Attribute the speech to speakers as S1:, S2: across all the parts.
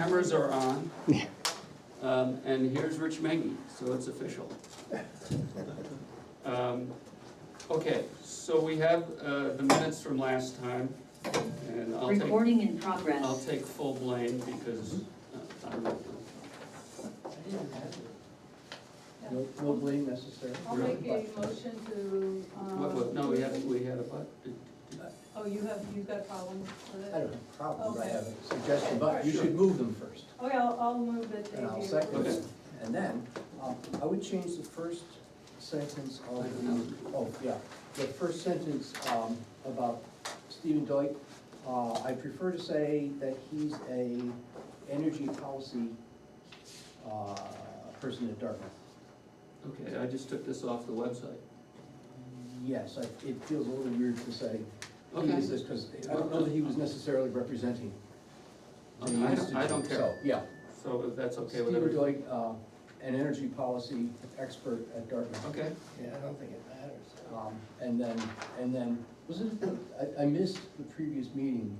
S1: cameras are on. Um, and here's Rich Mengy, so it's official. Um, okay, so we have, uh, the minutes from last time, and I'll take,
S2: Recording in
S1: I'll
S2: progress.
S1: take full blame because uh, I'm,
S3: No, no blame necessary.
S4: I'll make a motion to,
S1: what, what,
S4: um,
S1: no, we had, we had a, but,
S4: oh, you have, you've got problems with
S3: I
S4: it?
S3: don't have a problem, I
S4: Okay.
S3: have a suggestion, but you should move them first,
S4: Okay, I'll, I'll move that they
S3: and I'll
S4: be-
S3: second
S1: Okay.
S3: it. And then, um, I would change the first sentence
S1: I
S3: of
S1: don't
S3: the,
S1: know.
S3: oh, yeah, the first sentence, um, about Stephen Doig. Uh, I prefer to say that he's a energy policy, uh, person at Dartmouth.
S1: Okay, I just took this off the website.
S3: Yes, I, it feels a little weird to say he
S1: Okay.
S3: is this, because I don't know that he was necessarily representing the
S1: Okay, I don't-
S3: institute,
S1: I don't care.
S3: so, yeah.
S1: So if that's okay with
S3: Steve
S1: everybody?
S3: Doig, uh, an energy policy expert at Dartmouth.
S1: Okay,
S5: Yeah, I don't think it matters.
S3: Um, And then, and then, was it, I, I missed the previous meeting.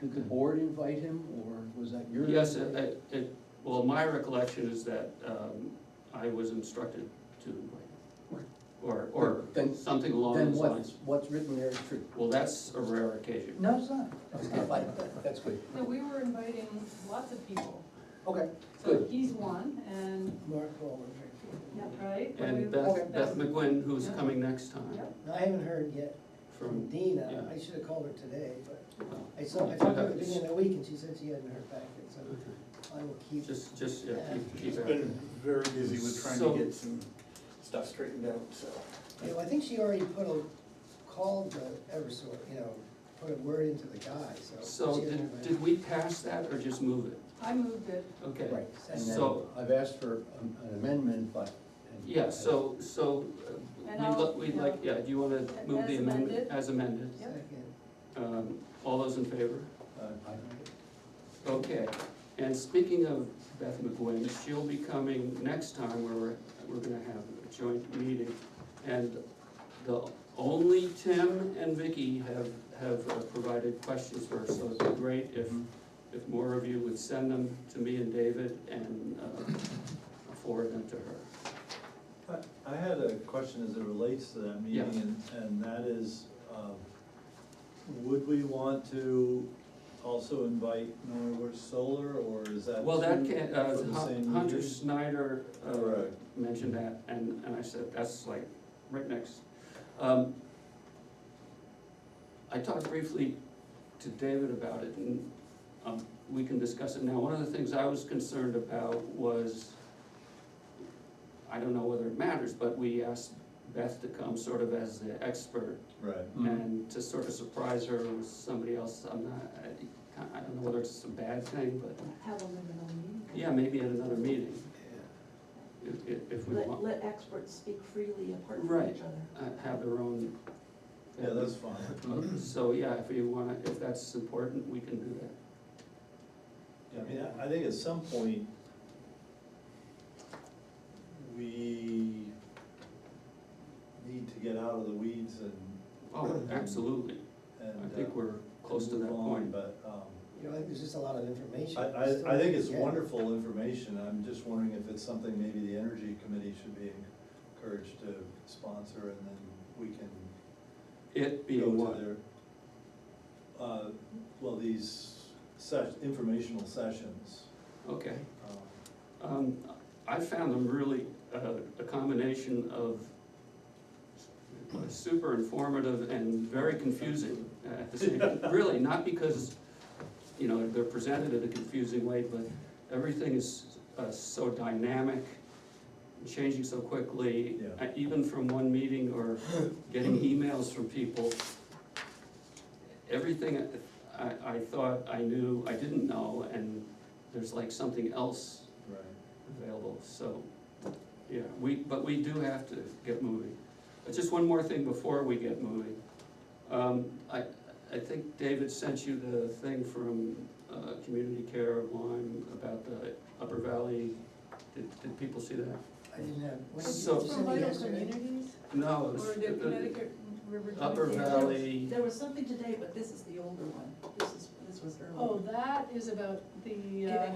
S3: Did the board invite him, or was that your?
S1: yes, uh, it, it- it, well, my recollection is that, um, I was instructed to, or, or
S3: Then-
S1: something along
S3: Then
S1: those
S3: what's,
S1: lines.
S3: what's written there is true.
S1: Well, that's a rare occasion.
S3: No, it's not. It's not like that. That's good.
S4: No, we were inviting lots of people,
S3: Okay,
S4: so
S3: good.
S4: he's one, and,
S5: Mark Wahlberg.
S4: yeah, right? but we-
S1: And Beth, Beth
S4: that's-
S1: McGuinn, who's
S4: Yeah.
S1: coming next time
S4: Yep.
S5: No, I haven't heard yet from
S1: from, uh,
S5: Dina,
S1: yeah.
S5: I should have called her today, but
S1: well,
S5: I saw, I talked to her at the beginning of the week and she said she hadn't heard back yet, so
S1: okay.
S5: I will keep.
S1: just, just, yeah, keep, keep
S6: She's
S1: at
S6: been
S1: it.
S6: very busy with trying
S1: So-
S6: to get some stuff straightened out, so.
S5: You know, I think she already put a, called the Eversort, you know, put a word into the guy, so.
S1: So
S5: she hasn't
S1: did,
S5: heard
S1: did we pass that or just move it?
S4: I moved it,
S1: Okay.
S3: Right, and then
S1: So-
S3: I've asked for an an amendment, but. and-
S1: Yeah, so, so
S4: And
S1: uh, we'd, li-
S4: I'll,
S1: we'd
S4: you know,
S1: like, yeah, do you wanna move the
S4: as
S1: amendment
S4: amended?
S1: as amended?
S5: back.
S4: Yep.
S5: Second.
S1: Um, all those in favor?
S3: Uh, I-
S1: Okay, and speaking of Beth McGuinn, she'll be coming next time where we're, we're gonna have a joint meeting. And the, only Tim and Vicky have, have uh, provided questions for her, so it'd be great if,
S7: Mm-hmm.
S1: if more of you would send them to me and David and, uh, forward them to her.
S7: I I had a question as it relates to that meeting, and, and that is, um, would we want to also invite Norwood Solar, or is that?
S1: Well, that
S7: two
S1: can, uh,
S7: for the same
S1: Hun- Hunter
S7: meeting?
S1: Snyder, uh,
S7: Correct.
S1: mentioned that, and, and I said, that's like, right next. Um, I talked briefly to David about it, and, um, we can discuss it now. One of the things I was concerned about was, I don't know whether it matters, but we asked Beth to come sort of as the expert,
S7: Right,
S3: Mm.
S1: and to sort of surprise her with somebody else, I'm not, I, I don't know whether it's a bad thing, but,
S8: Have a liminal meeting.
S1: yeah, maybe at another meeting, if, if- if we
S8: Let,
S1: want,
S8: let experts speak freely apart from
S1: Right.
S8: each other.
S1: uh, have their own.
S7: yeah, that's fine.
S1: Uh, So, yeah, if you wanna, if that's important, we can do that.
S7: I mean, I- I think at some point, we need to get out of the weeds and.
S1: Oh, absolutely,
S7: and,
S1: I think
S7: uh,
S1: we're close to
S7: move
S1: that
S7: on,
S1: point.
S7: But, um,
S5: You know, I think there's just a lot of information.
S7: I, I, I think it's
S5: Yeah.
S7: wonderful information, I'm just wondering if it's something maybe the energy committee should be encouraged to sponsor and then we can
S1: It being
S7: go to
S1: one,
S7: their. Uh, well, these sesh, informational sessions,
S1: okay.
S7: um,
S1: Um, I found them really uh, a combination of super informative and very confusing at the same, really, not because, you know, they're presented in a confusing way, but everything is uh, so dynamic, changing so quickly,
S7: Yeah.
S1: uh, even from one meeting or getting emails from people. Everything uh, I, I thought I knew, I didn't know, and there's like something else
S7: right.
S1: available, so, yeah, we, but we do have to get moving. But just one more thing before we get moving. Um, I, I think David sent you the thing from, uh, Community Care of Lyme about the Upper Valley. Did, did people see that?
S5: I didn't have, what did you,
S1: So-
S5: you
S4: From
S5: send it
S4: Vital
S5: yesterday?
S4: Communities,
S1: No, it
S4: or
S1: was
S4: the
S1: the
S4: Connecticut River.
S1: Upper
S4: Joint-
S1: Valley,
S8: There was something today, but this is the older one. This is, this was earlier.
S4: Oh, that is Oh, about the, uh,